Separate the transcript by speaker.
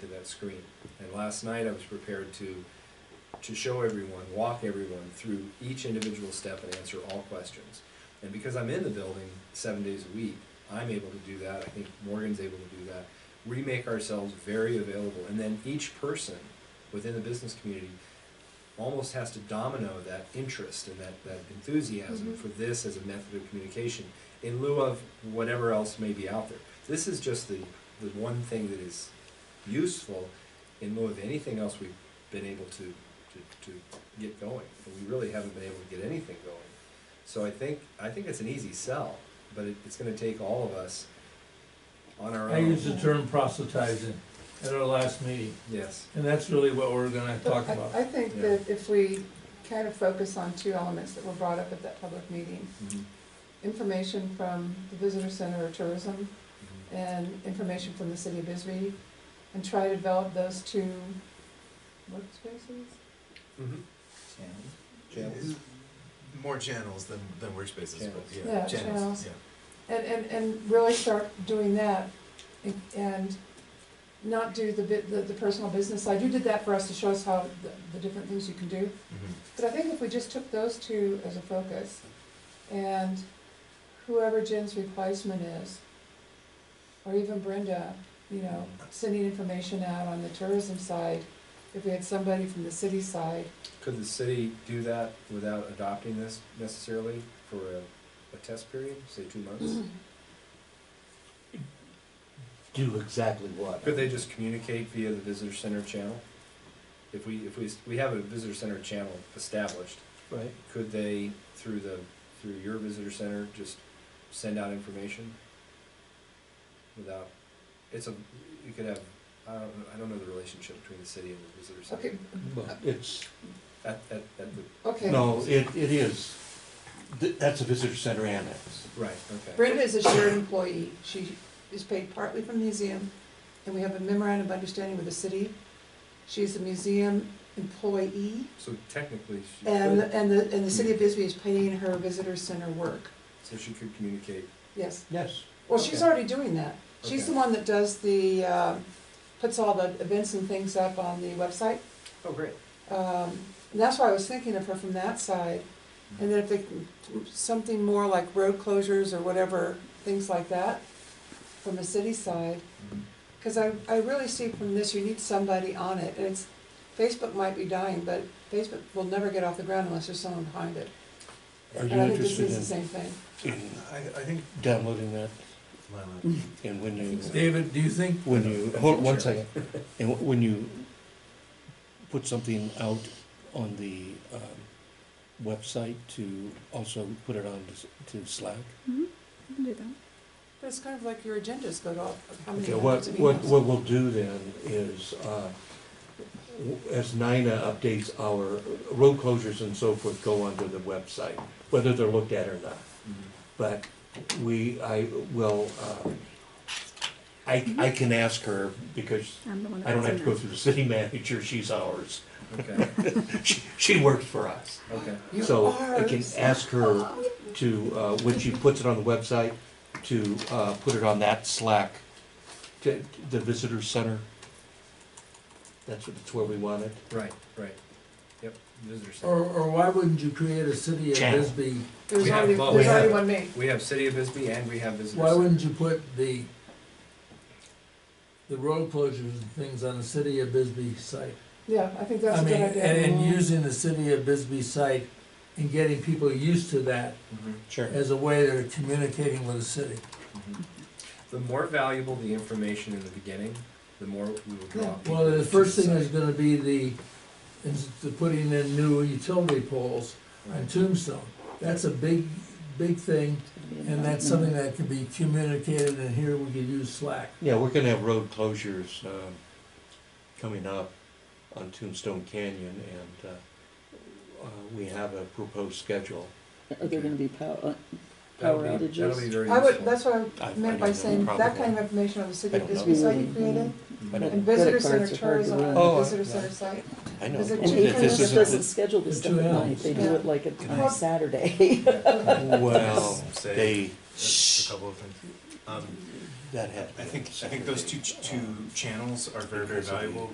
Speaker 1: that screen. And last night I was prepared to, to show everyone, walk everyone through each individual step and answer all questions. And because I'm in the building seven days a week, I'm able to do that. I think Morgan's able to do that. We make ourselves very available. And then each person within the business community almost has to domino that interest and that, that enthusiasm
Speaker 2: Mhm.
Speaker 1: for this as a method of communication in lieu of whatever else may be out there. This is just the, the one thing that is useful in lieu of anything else we've been able to, to, to get going. And we really haven't been able to get anything going. So I think, I think it's an easy sell, but it, it's gonna take all of us on our
Speaker 3: I
Speaker 1: own.
Speaker 3: used the term proselytizing at our last meeting,
Speaker 1: Yes,
Speaker 3: and that's really what we're gonna talk
Speaker 2: I-
Speaker 3: about.
Speaker 2: I think that if we kind of focus on two elements that were brought up at that public meeting,
Speaker 1: Mhm.
Speaker 2: information from the visitor center or tourism
Speaker 1: Mhm.
Speaker 2: and information from the city of Bisbee, and try to develop those two workspaces?
Speaker 1: Mhm. Channels.
Speaker 4: More channels than, than workspaces, but
Speaker 1: Channels.
Speaker 4: yeah,
Speaker 2: Yeah, channels.
Speaker 4: channels, yeah.
Speaker 2: And, and, and really start doing that and- and not do the, bit- the, the personal business side. You did that for us to show us how, the, the different things you can do.
Speaker 4: Mhm.
Speaker 2: But I think if we just took those two as a focus, and whoever Jen's replacement is, or even Brenda, you know, sending information out on the tourism side, if we had somebody from the city side,
Speaker 1: Could the city do that without adopting this necessarily for a, a test period, say two months?
Speaker 5: Do exactly what?
Speaker 1: Could they just communicate via the visitor center channel? If we, if we, we have a visitor center channel established,
Speaker 5: Right.
Speaker 1: could they, through the, through your visitor center, just send out information? Without, it's a, you could have, I don't, I don't know the relationship between the city and the visitor
Speaker 2: okay,
Speaker 1: center.
Speaker 5: But it's,
Speaker 1: At, at, at the,
Speaker 2: okay.
Speaker 5: no, it, it is, Th- that's a visitor center annex.
Speaker 1: right, okay.
Speaker 2: Brenda is a shared employee, she is paid partly from the museum, and we have a memorandum of understanding with the city. She's a museum employee,
Speaker 1: So technically, she
Speaker 2: and,
Speaker 1: could,
Speaker 2: and the, and the city of Bisbee is paying her visitor center work,
Speaker 1: so she could communicate
Speaker 2: yes.
Speaker 5: Yes.
Speaker 2: Well, she's
Speaker 1: Okay.
Speaker 2: already doing that. She's the
Speaker 1: Okay.
Speaker 2: one that does the, uh, puts all the events and things up on the website.
Speaker 1: Oh, great.
Speaker 2: Um, And that's why I was thinking of her from that side. And then if they, can- something more like road closures or whatever, things like that, from the city side. Because I, I really see from this, you need somebody on it. And it's, Facebook might be dying, but Facebook will never get off the ground unless there's someone behind it.
Speaker 5: Are you
Speaker 2: And I think this is the
Speaker 5: interested
Speaker 2: same thing.
Speaker 5: in, in
Speaker 4: I, I think,
Speaker 5: downloading that
Speaker 4: my lap-
Speaker 5: and when you,
Speaker 3: David, do you think,
Speaker 5: when you, hold one second. And wh- when you put something out on the, um, website to also put it on to s- to Slack?
Speaker 2: But it's kind of like your agendas go to, all- how many
Speaker 5: Okay, what,
Speaker 2: hundreds of
Speaker 5: what,
Speaker 2: emails.
Speaker 5: what we'll do then is, uh, w- as NINA updates our road closures and so forth go onto the website, whether they're looked at or not. But we, I will, uh, I, I can ask her because
Speaker 6: I'm the one that
Speaker 5: I don't
Speaker 6: puts
Speaker 5: have to
Speaker 6: in
Speaker 5: go
Speaker 6: that.
Speaker 5: through the city manager, she's ours.
Speaker 1: Okay,
Speaker 5: She, she works for us.
Speaker 1: okay.
Speaker 2: You
Speaker 5: So
Speaker 2: are
Speaker 5: I can ask her to, uh, when she puts it on the website, to uh, put it on that Slack, to the visitor center. That's what, that's where we want it.
Speaker 1: Right, right. Yep, visitor
Speaker 3: or,
Speaker 1: center.
Speaker 3: or why wouldn't you create a city of
Speaker 5: Channel.
Speaker 3: Bisbee?
Speaker 2: There's
Speaker 1: We have
Speaker 2: already,
Speaker 1: both.
Speaker 2: there's
Speaker 3: We
Speaker 2: already
Speaker 1: have-
Speaker 2: one made.
Speaker 1: We have City of Bisbee and we have visitor
Speaker 3: Why
Speaker 1: center.
Speaker 3: wouldn't you put the, the road closures and things on the city of Bisbee site?
Speaker 2: Yeah, I think that's
Speaker 3: I
Speaker 2: a
Speaker 3: mean,
Speaker 2: good
Speaker 3: and,
Speaker 2: idea.
Speaker 3: and using the city of Bisbee site and getting people used to that
Speaker 1: Mhm,
Speaker 5: Sure.
Speaker 3: as a way they're communicating with the city.
Speaker 1: mhm. The more valuable the information in the beginning, the more we will draw.
Speaker 2: Yeah.
Speaker 1: people
Speaker 3: Well,
Speaker 1: to
Speaker 3: the first thing
Speaker 1: site.
Speaker 3: is gonna be the, is the putting in new utility poles on
Speaker 1: Right.
Speaker 3: Tombstone. That's a big, big thing, and that's something that can be communicated, and here we could use Slack.
Speaker 5: Yeah, we're gonna have road closures um, coming up on Tombstone Canyon, and uh, uh, we have a proposed schedule.
Speaker 7: Are there gonna be uh, power,
Speaker 1: That'll
Speaker 7: power
Speaker 1: be, that'll be
Speaker 7: outages?
Speaker 1: very
Speaker 2: I would,
Speaker 1: useful.
Speaker 2: that's what I
Speaker 5: I- I
Speaker 2: meant by
Speaker 5: don't know,
Speaker 2: saying, that
Speaker 5: probably.
Speaker 2: kind of information on the city
Speaker 5: I
Speaker 2: of
Speaker 5: don't know.
Speaker 2: Bisbee site you created,
Speaker 5: I
Speaker 1: Mhm.
Speaker 5: don't-
Speaker 2: and visitor
Speaker 7: Credit
Speaker 2: center
Speaker 7: cards are hard to
Speaker 2: tourism on
Speaker 5: run.
Speaker 2: the
Speaker 5: Oh,
Speaker 2: visitor
Speaker 5: right.
Speaker 2: center site.
Speaker 5: I know.
Speaker 2: Is it
Speaker 5: that
Speaker 7: And
Speaker 2: cheaper?
Speaker 7: even
Speaker 5: this
Speaker 7: if
Speaker 5: is-
Speaker 7: it doesn't schedule this
Speaker 3: The
Speaker 7: stuff
Speaker 3: two
Speaker 7: at night,
Speaker 3: Ls.
Speaker 7: they do
Speaker 2: Yeah.
Speaker 7: it like at- on
Speaker 2: Well-
Speaker 7: a Saturday.
Speaker 5: Well,
Speaker 4: Say-
Speaker 5: they,
Speaker 4: A couple of things. Um,
Speaker 5: That has.
Speaker 4: I think, I think those two, two channels are very, very valuable